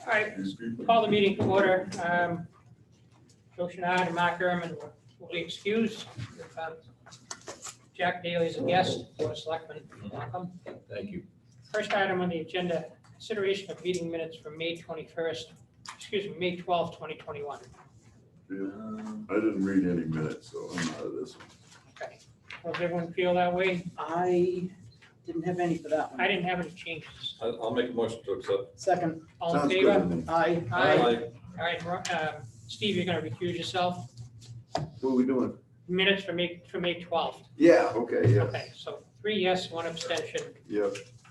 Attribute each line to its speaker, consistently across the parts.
Speaker 1: All right, call the meeting to order. Um, Joe Shinard and Mark Erman will be excused. Um, Jack Daly is a guest, Board of Selectmen, welcome.
Speaker 2: Thank you.
Speaker 1: First item on the agenda, consideration of meeting minutes from May 21st, excuse me, May 12th, 2021.
Speaker 3: Yeah, I didn't read any minutes, so I'm out of this. one.
Speaker 1: Okay. Does everyone feel that way?
Speaker 4: I didn't have any for that
Speaker 1: I
Speaker 4: one.
Speaker 1: didn't have any changes.
Speaker 2: I'll, I'll make a motion to accept.
Speaker 4: Second,
Speaker 1: All in
Speaker 3: Sounds good to
Speaker 1: favor?
Speaker 3: me.
Speaker 4: I,
Speaker 1: Aye. All right, Ro- um, Steve, you're going to recuse yourself.
Speaker 3: What are we doing?
Speaker 1: Minutes for May, for May 12th.
Speaker 3: Yeah, okay, yeah,
Speaker 1: Okay, so three yes, one abstention.
Speaker 3: yeah,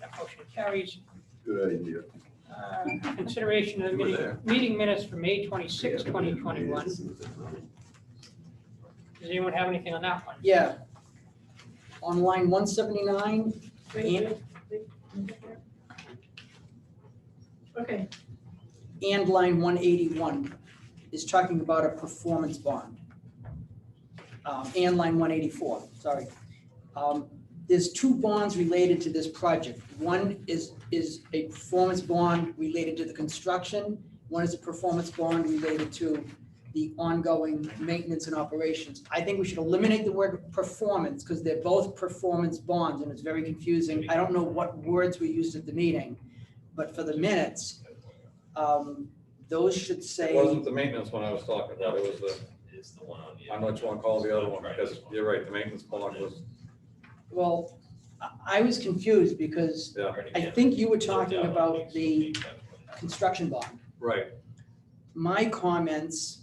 Speaker 1: That motion carries.
Speaker 3: good idea.
Speaker 1: Uh, Consideration of the
Speaker 3: You were
Speaker 1: meeting,
Speaker 3: there.
Speaker 1: meeting minutes for May 26, 2021. Does anyone have anything on that one?
Speaker 4: yeah. On line one seventy-nine, and,
Speaker 5: Okay,
Speaker 4: and line one eighty-one is talking about a performance bond. Um, and line one eighty-four, sorry. Um, there's two bonds related to this project. One is, is a performance bond related to the construction. One is a performance bond related to the ongoing maintenance and operations. I think we should eliminate the word performance because they're both performance bonds and it's very confusing. I don't know what words were used at the meeting, but for the minutes, um, those should
Speaker 2: It
Speaker 4: say.
Speaker 2: wasn't the maintenance one I was talking about, it was the,
Speaker 6: It's the one on the.
Speaker 2: I don't know what you wanna call the other one, because you're right, the maintenance bond was,
Speaker 4: Well, I, I was confused because
Speaker 2: yeah,
Speaker 4: I think you were talking about the construction bond.
Speaker 2: right.
Speaker 4: My comments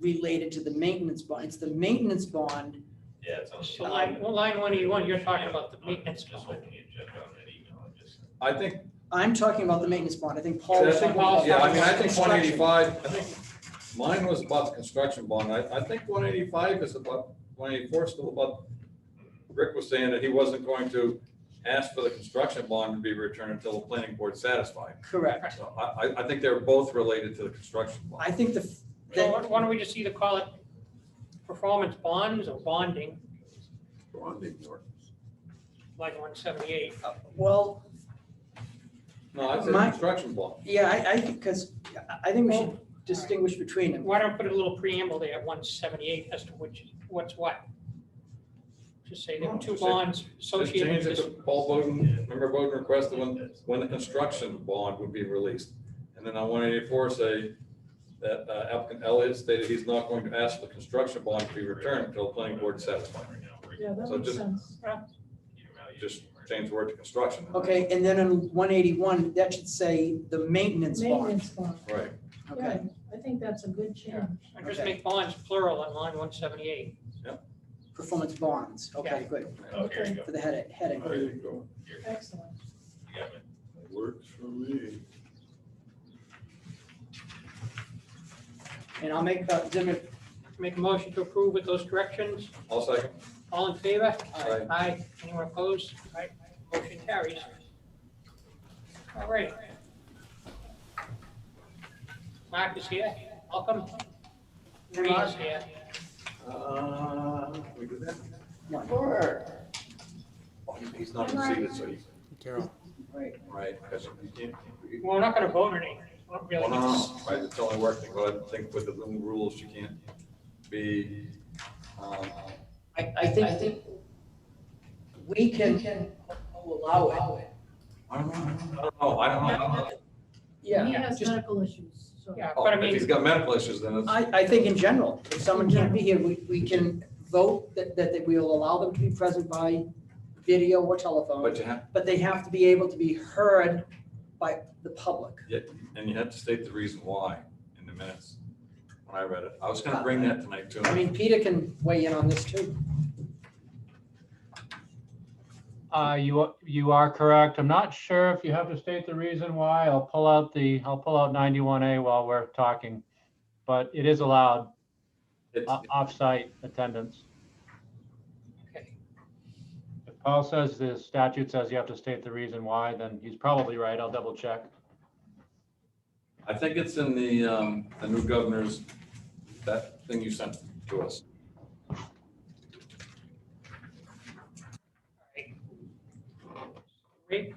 Speaker 4: related to the maintenance bond, it's the maintenance bond,
Speaker 6: Yeah, it's on.
Speaker 1: So
Speaker 2: um,
Speaker 1: line, well, line 181, you're talking about the maintenance
Speaker 6: Just
Speaker 1: bond.
Speaker 6: open the agenda on that email and just.
Speaker 2: I think,
Speaker 4: I'm talking about the maintenance bond, I think Paul
Speaker 2: I
Speaker 4: was
Speaker 2: think,
Speaker 4: talking
Speaker 2: yeah,
Speaker 4: about.
Speaker 2: I mean, I think one
Speaker 4: construction.
Speaker 2: eighty-five, I think, mine was about the construction bond, I, I think one eighty-five is about, one eighty-four is still about, Rick was saying that he wasn't going to ask for the construction bond to be returned until the planning board's satisfied.
Speaker 4: Correct,
Speaker 2: So I, I, I think they're both related to the construction bond.
Speaker 4: I think the,
Speaker 1: So
Speaker 4: that,
Speaker 1: why- why don't we just either call it performance bonds or bonding,
Speaker 3: Bonding work.
Speaker 1: like 178?
Speaker 4: uh, well,
Speaker 2: No, I said
Speaker 4: My-
Speaker 2: construction bond.
Speaker 4: yeah, I, I think, because I think we should
Speaker 1: Well,
Speaker 4: distinguish between them.
Speaker 1: Why don't I put a little preamble there, 178, as to which, what's what? Just say there are two
Speaker 2: Just say-
Speaker 1: bonds
Speaker 2: Just
Speaker 1: associated
Speaker 2: change
Speaker 1: with
Speaker 2: it
Speaker 1: this.
Speaker 2: to Paul Bowden, remember Bowden requested when, when the construction bond would be released. And then on one eighty-four say that uh, applicant Elliott stated he's not going to ask for the construction bond to be returned until the planning board is satisfied.
Speaker 5: yeah, that
Speaker 2: So
Speaker 5: makes
Speaker 2: just-
Speaker 5: sense.
Speaker 2: Just change the word to construction.
Speaker 4: Okay, and then in one eighty-one, that should say the maintenance bond,
Speaker 5: Maintenance bond,
Speaker 2: Right,
Speaker 4: okay?
Speaker 5: yeah, I think that's a good
Speaker 1: Yeah.
Speaker 5: change.
Speaker 1: Or Just
Speaker 4: Okay.
Speaker 1: make bonds plural on line 178.
Speaker 4: Performance bonds, okay, good,
Speaker 6: Oh, here you go.
Speaker 4: for the heading, heading.
Speaker 3: There you go.
Speaker 6: Here,
Speaker 5: Excellent.
Speaker 6: you got it.
Speaker 3: Works for me.
Speaker 4: And I'll make that, then it-
Speaker 1: Make a motion to approve with those corrections.
Speaker 2: I'll second.
Speaker 1: All in favor?
Speaker 2: Aye.
Speaker 1: Aye. Anyone opposed? Aye. Motion carries. All right. Mark is here. Welcome. Marie is here.
Speaker 2: Uh, we do that?
Speaker 4: One.
Speaker 2: Oh, He's not conceded, so he,
Speaker 4: right,
Speaker 2: right, because he can't.
Speaker 1: Well, we're not going to vote or anything. We don't really
Speaker 2: Well,
Speaker 1: need
Speaker 2: no,
Speaker 1: to-
Speaker 2: no, right, it's only working, but I think with the new rules, you can't be, um,
Speaker 4: I, I think, I think we can allow it.
Speaker 2: I don't know, I don't know, I don't know. I don't know.
Speaker 5: He
Speaker 4: Yeah,
Speaker 5: has
Speaker 4: just,
Speaker 5: medical issues, so.
Speaker 1: Yeah,
Speaker 2: Oh,
Speaker 1: but I
Speaker 2: If he's
Speaker 1: mean,
Speaker 2: got medical issues, then it's,
Speaker 4: I, I think in general, if someone can't be here, we, we can vote that, that that we will allow them to be present by video or telephone,
Speaker 2: but you have,
Speaker 4: but they have to be able to be heard by the public.
Speaker 2: and you have to state the reason why in the minutes when I read it. I was gonna bring that tonight too.
Speaker 4: I mean, Peter can weigh in on this too.
Speaker 7: Uh, you, you are correct. I'm not sure if you have to state the reason why. I'll pull out the, I'll pull out 91A while we're talking. But it is allowed,
Speaker 2: It's-
Speaker 7: o- off-site attendance.
Speaker 1: okay.
Speaker 7: If Paul says the statute says you have to state the reason why, then he's probably right. I'll double check.
Speaker 2: I think it's in the, um, the new governor's, that thing you sent to us.
Speaker 1: Great.